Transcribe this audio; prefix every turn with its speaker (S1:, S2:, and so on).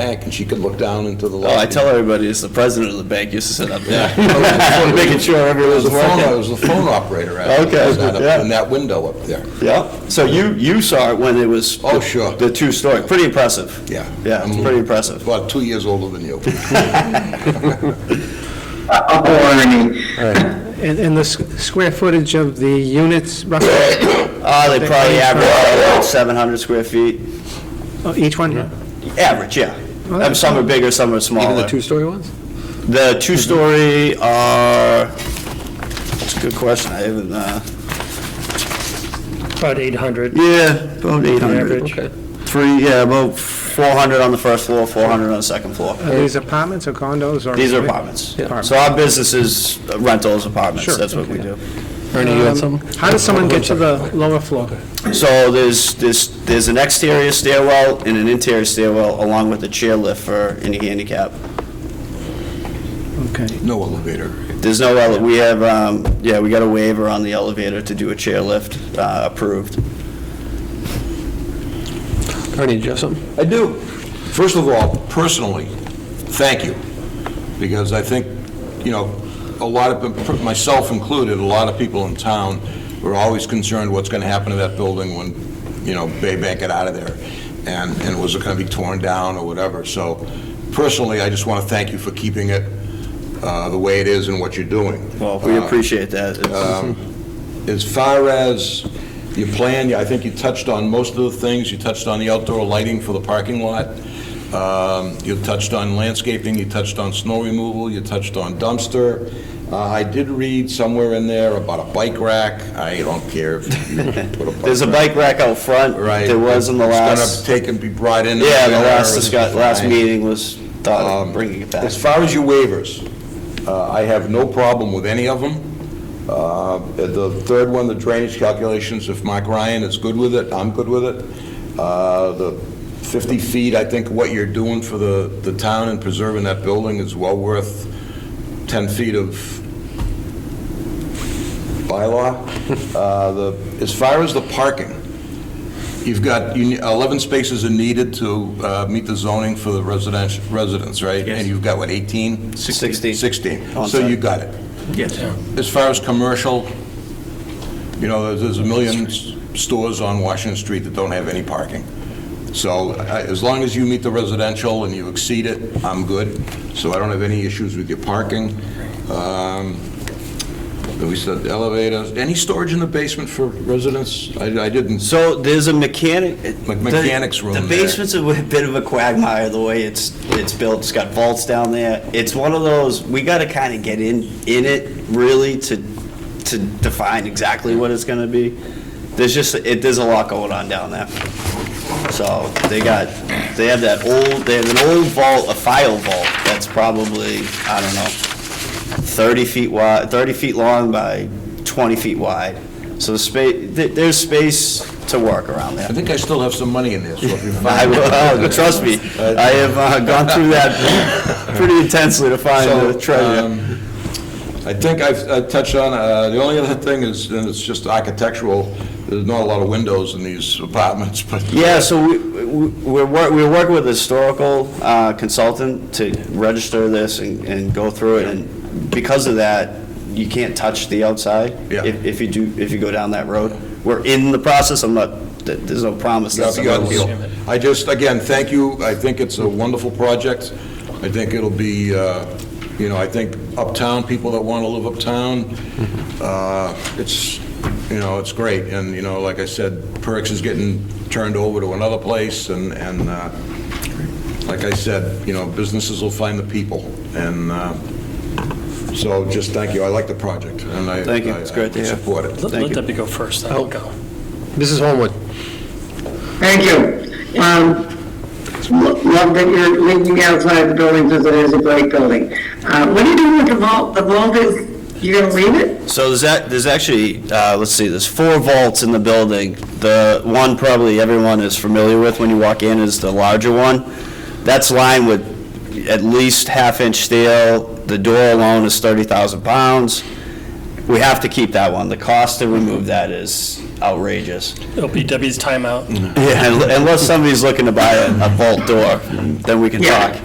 S1: bank, and she could look down into the lobby.
S2: Oh, I tell everybody, it's the president of the bank used to sit up there.
S1: Just wanna
S2: Making sure
S1: It was
S2: everyone's
S1: the phone, it
S2: working.
S1: was the phone operator, actually,
S2: Okay,
S1: was that up-
S2: yeah.
S1: in that window up there.
S2: Yeah, so you, you saw it when it was.
S1: Oh,
S2: the-
S1: sure.
S2: The two-story, pretty impressive.
S1: Yeah. Mm-hmm.
S2: Yeah, it's pretty impressive.
S1: About two years older than you.
S3: Up warning.
S4: And, and the s- square footage of the units, roughly,
S2: Uh, they probably average about 700 square feet,
S4: oh, each one?
S2: average, yeah.
S4: Oh,
S2: Um, Some are bigger, some are smaller.
S5: Even the two-story ones?
S2: The two-story are, that's a good question, I haven't, uh,
S6: About 800
S2: yeah, about 800.
S6: average.
S2: Three, yeah, about 400 on the first floor, 400 on the second floor.
S4: Are these apartments or condos or?
S2: These are apartments.
S4: Yeah.
S2: So our business is uh, rentals, apartments,
S4: Sure,
S2: that's what we do.
S5: Ernie,
S1: Um,
S5: you got something?
S4: Um, How does someone get to the lower floor?
S2: So there's, there's, there's an exterior stairwell and an interior stairwell along with a chairlift for any handicap.
S4: Okay.
S1: No elevator.
S2: There's no, ele- we have, um, yeah, we got a waiver on the elevator to do a chairlift, uh, approved.
S5: Ernie, did you have something?
S1: I do. First of all, personally, thank you, because I think, you know, a lot of, myself included, a lot of people in town were always concerned what's going to happen to that building when, you know, Baybank get out of there, and, and was it going to be torn down or whatever. So personally, I just want to thank you for keeping it uh, the way it is and what you're doing.
S2: Well, we appreciate that. It's-
S1: um, As far as your plan, I think you touched on most of the things. You touched on the outdoor lighting for the parking lot. Um, You touched on landscaping, you touched on snow removal, you touched on dumpster. Uh, I did read somewhere in there about a bike rack. I don't care if you put a bike
S2: There's a
S1: rack,
S2: bike rack out front.
S1: Right.
S2: There was in the
S1: It's
S2: last,
S1: going to take and be brought in. in
S2: yeah, the
S1: winter,
S2: last,
S1: it's
S2: discuss- last
S1: fine.
S2: meeting was thought
S1: Um,
S2: of bringing it back.
S1: As far as your waivers, uh, I have no problem with any of them. Uh, The third one, the drainage calculations, if Mike Ryan is good with it, I'm good with it. Uh, The 50 feet, I think what you're doing for the the town and preserving that building is well worth 10 feet of bylaw. Uh, the- As far as the parking, you've got, you ne- 11 spaces are needed to uh, meet the zoning for the residents, residents, right? And you've got, what, 18?
S2: Sixteen. Oh,
S1: 16.
S2: On
S1: So
S2: site.
S1: you got it.
S6: Yes.
S1: As far as commercial, you know, there's- there's a million s- stores on Washington Street that don't have any parking. So I- as long as you meet the residential and you exceed it, I'm good. So I don't have any issues with your parking. Um, We said elevators, any storage in the basement for residents? I I didn't,
S2: So there's a mechanic.
S1: Like mechanics room
S2: The
S1: there.
S2: basement's a bit of a quagmire, the way it's, it's built. It's got vaults down there. It's one of those, we gotta kinda get in, in it really to, to define exactly what it's gonna be. There's just, it, there's a lot going on down there. So they got, they have that old, they have an old vault, a file vault, that's probably, I don't know, 30 feet wide, 30 feet long by 20 feet wide. So the space, there's space to work around
S1: I
S2: there.
S1: think I still have some money in there, so if you
S2: I
S1: find...
S2: will, oh, trust me, I have uh, gone through that pretty intensely to find
S1: So,
S2: the treasure.
S1: um, I think I've I've touched on, uh, the only other thing is, and it's just architectural, there's not a lot of windows in these apartments, but...
S2: Yeah, so we, we- we're, wor- we're working with a historical uh, consultant to register this and, and go through it, and because of that, you can't touch the outside.
S1: Yeah.
S2: If, if you do, if you go down that road. We're in the process, I'm not, th- there's no promise
S1: Yeah,
S2: that
S1: beyond
S2: someone will.
S1: deal. I just, again, thank you. I think it's a wonderful project. I think it'll be, uh, you know, I think uptown, people that want to live uptown,
S2: Mm-hmm.
S1: uh, it's, you know, it's great. And, you know, like I said, Perks is getting turned over to another place, and, and uh, like I said, you know, businesses will find the people. And uh, so just thank you. I like the project, and I...
S2: Thank you. It's great to
S1: I- I
S2: hear.
S1: support it.
S6: Let
S2: Thank
S6: let
S2: you. Oh.
S6: Debbie go first, then I'll go.
S5: Mrs. Homewood?
S3: Thank you. Um, lo- Love that you're leaving the outside of the building because it is a great building. Uh, What are you doing with the vault? The vault is, you're going to leave it?
S2: So there's, act- there's actually, uh, let's see, there's four vaults in the building. The one probably everyone is familiar with when you walk in is the larger one. That's lined with at least half-inch steel. The door alone is 30,000 pounds. We have to keep that one. The cost to remove that is outrageous.
S6: LPW's timeout.
S2: Yeah, unless somebody's looking to buy a a vault door, then we can
S3: Yeah.
S2: talk.